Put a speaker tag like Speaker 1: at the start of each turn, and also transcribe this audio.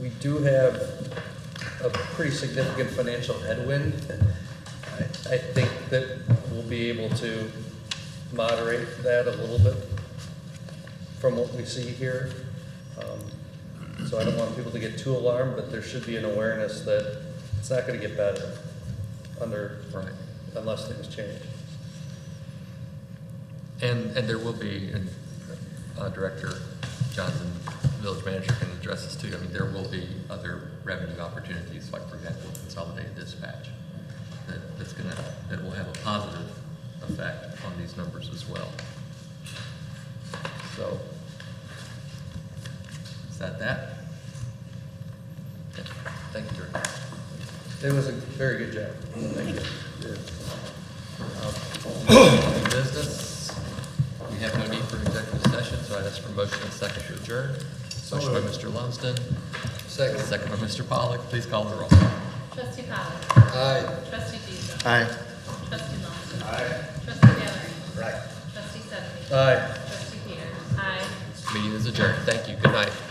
Speaker 1: we do have a pretty significant financial headwind. I, I think that we'll be able to moderate that a little bit from what we see here. Um, So I don't want people to get too alarmed, but there should be an awareness that it's not gonna get better under,
Speaker 2: Right.
Speaker 1: unless things change.
Speaker 2: And, and there will be, and uh, Director Johnson, Village Manager can address this too, I mean, there will be other revenue opportunities, like for example, consolidated dispatch, that, that's gonna, that will have a positive effect on these numbers as well. So, is that that? Yeah. Thank you, Director.
Speaker 1: It was a very good job. Thank you.
Speaker 2: New business, we have no need for an executive session, so I'd ask for a motion and second to adjourn. Motion by Mr. Lumsden. Second. Second by Mr. Pollak, please call the roll.
Speaker 3: Trustee Powell.
Speaker 1: Aye.
Speaker 3: Trustee Dees.
Speaker 4: Aye.
Speaker 3: Trustee Lawson. Aye. Trustee Valerie.
Speaker 4: Right.
Speaker 3: Trustee Stephanie.
Speaker 1: Aye.
Speaker 3: Trustee Peters. Aye.
Speaker 2: Meeting is adjourned, thank you, good night.